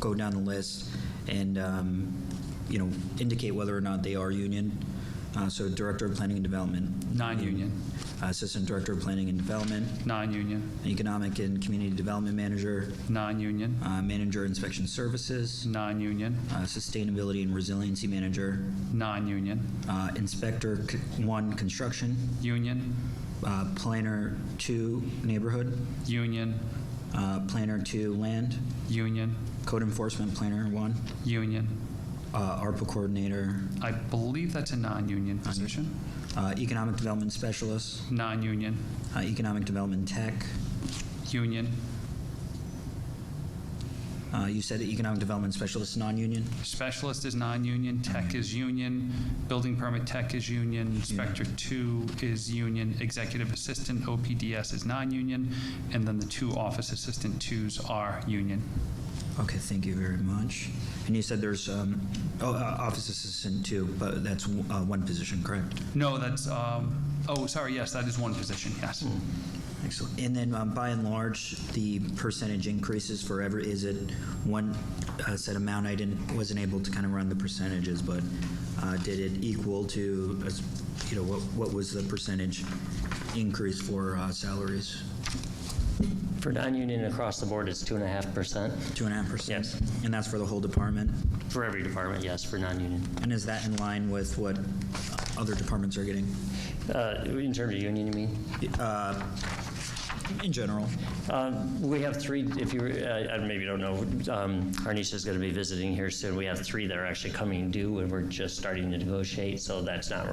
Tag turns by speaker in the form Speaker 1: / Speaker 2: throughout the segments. Speaker 1: go down the list and, um, you know, indicate whether or not they are union. Uh, So Director of Planning and Development, Uh,
Speaker 2: Non-union,
Speaker 1: Assistant Director of Planning and Development,
Speaker 2: non-union,
Speaker 1: Economic and Community Development Manager,
Speaker 2: non-union,
Speaker 1: uh, Manager Inspection Services,
Speaker 2: non-union,
Speaker 1: uh, Sustainability and Resiliency Manager,
Speaker 2: non-union,
Speaker 1: uh, Inspector C- 1 Construction,
Speaker 2: union,
Speaker 1: uh, Planner 2 Neighborhood,
Speaker 2: union,
Speaker 1: uh, Planner 2 Land,
Speaker 2: union,
Speaker 1: Code Enforcement Planner 1,
Speaker 2: union.
Speaker 1: uh, ARPA Coordinator,
Speaker 2: I believe that's a non-union position.
Speaker 1: uh, Economic Development Specialist,
Speaker 2: Non-union,
Speaker 1: uh, Economic Development Tech.
Speaker 2: union,
Speaker 1: Uh, You said Economic Development Specialist, non-union?
Speaker 2: specialist is non-union, tech is union, building permit tech is union, inspector two is union, executive assistant OPDS is non-union, and then the two office assistant twos are union.
Speaker 1: Okay, thank you very much. And you said there's, um, oh, uh, Office Assistant too, but that's uh, one position, correct?
Speaker 2: No, that's, um, oh, sorry, yes, that is one position, yes.
Speaker 1: Excellent. And then um, by and large, the percentage increases for every, is it one uh, set amount? I didn't, wasn't able to kind of run the percentages, but uh, did it equal to, uh, you know, what, what was the percentage increase for uh, salaries?
Speaker 3: For non-union across the board, it's 2.5%
Speaker 1: Two and a half percent?
Speaker 3: Yes.
Speaker 1: And that's for the whole department?
Speaker 3: for every department, yes, for non-union.
Speaker 1: And is that in line with what other departments are getting
Speaker 3: Uh, In terms of union, you mean?
Speaker 1: in general?
Speaker 3: Um, We have three, if you, uh, I maybe don't know, um, Harnisha's going to be visiting here soon. We have three that are actually coming due, and we're just starting to negotiate, so that's not,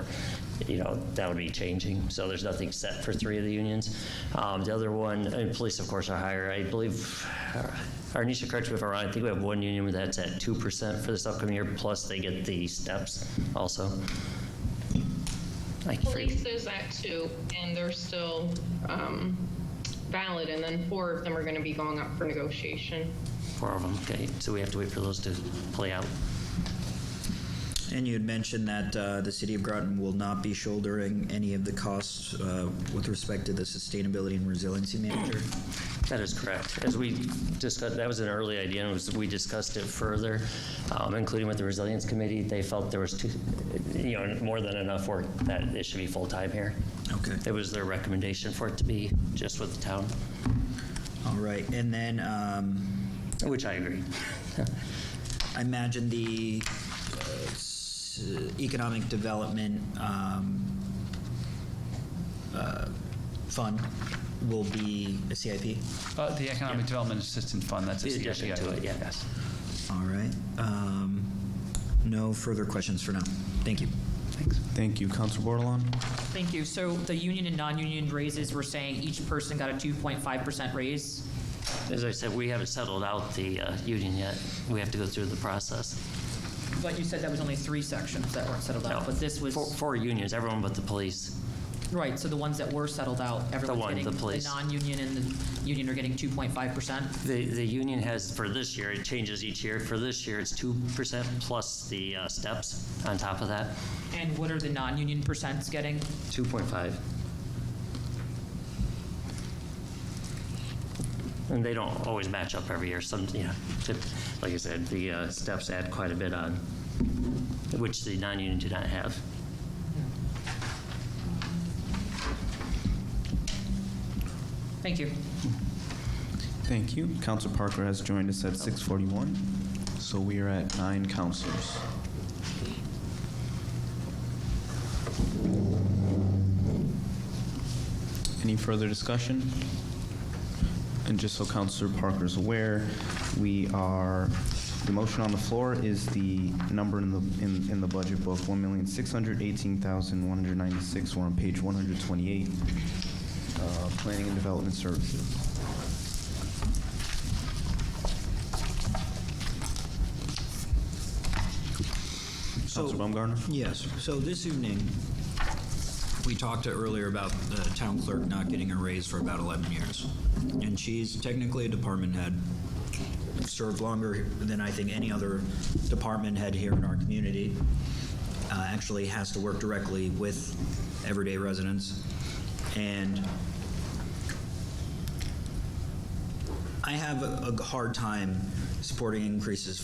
Speaker 3: you know, that would be changing. So there's nothing set for three of the unions. Um, The other one, and police, of course, are higher. I believe, Harnisha, correct me if I'm wrong, I think we have one union that's at 2% for this upcoming year, plus they get the steps also. I forget-
Speaker 4: Police is at two, and they're still um, valid, and then four of them are going to be going up for negotiation.
Speaker 3: Four of them, okay, so we have to wait for those to play out.
Speaker 1: And you had mentioned that uh, the city of Groton will not be shouldering any of the costs uh, with respect to the sustainability and resiliency manager.
Speaker 3: That is correct. As we discussed, that was an early idea, and was- we discussed it further, um, including with the Resilience Committee. They felt there was, too- you know, more than enough work that it should be full-time here.
Speaker 1: Okay.
Speaker 3: It was their recommendation for it to be just with the town,
Speaker 1: All right. And then um,
Speaker 3: which I agree.
Speaker 1: I imagine the uh, s- economic development um, uh, fund will be a CIP.
Speaker 2: Uh, The Economic Development Assistance Fund, that's a
Speaker 3: The
Speaker 2: CIP.
Speaker 3: addition to it, yeah, yes.
Speaker 1: All right. Um, no further questions for now. Thank you.
Speaker 5: Thank you. Council Bordelon?
Speaker 6: Thank you. So the union and non-union raises, we're saying each person got a 2.5% raise?
Speaker 3: As I said, we haven't settled out the uh, union yet. We have to go through the process.
Speaker 6: But you said that was only three sections that weren't settled out, but this
Speaker 3: Four-
Speaker 6: was,
Speaker 3: Four unions, everyone but the police.
Speaker 6: right, so the ones that were settled out, everyone's
Speaker 3: one,
Speaker 6: getting,
Speaker 3: the
Speaker 6: the
Speaker 3: police.
Speaker 6: non-union and the union are getting 2.5%?
Speaker 3: The, the union has, for this year, it changes each year. For this year, it's 2% plus the uh, steps on top of that,
Speaker 6: And what are the non-union percents getting?
Speaker 3: 2.5. And they don't always match up every year. Some, you know, tip- like I said, the uh, steps add quite a bit on, which the non-union do not have.
Speaker 6: Thank you.
Speaker 5: Thank you. Council Parker has joined us at 6:41, so we are at nine councilors. Any further discussion? And just so Councilor Parker's aware, we are, the motion on the floor is the number in the, in in the budget book, 1618196 We're on page 128, uh, Planning and Development Services.
Speaker 1: So-
Speaker 5: Councilor Baumgartner?
Speaker 1: Yes, so this evening, we talked earlier about the town clerk not getting a raise for about 11 years. And she's technically a department head, served longer than I think any other department head here in our community. Uh, Actually has to work directly with everyday residents. And I have a, a hard time supporting increases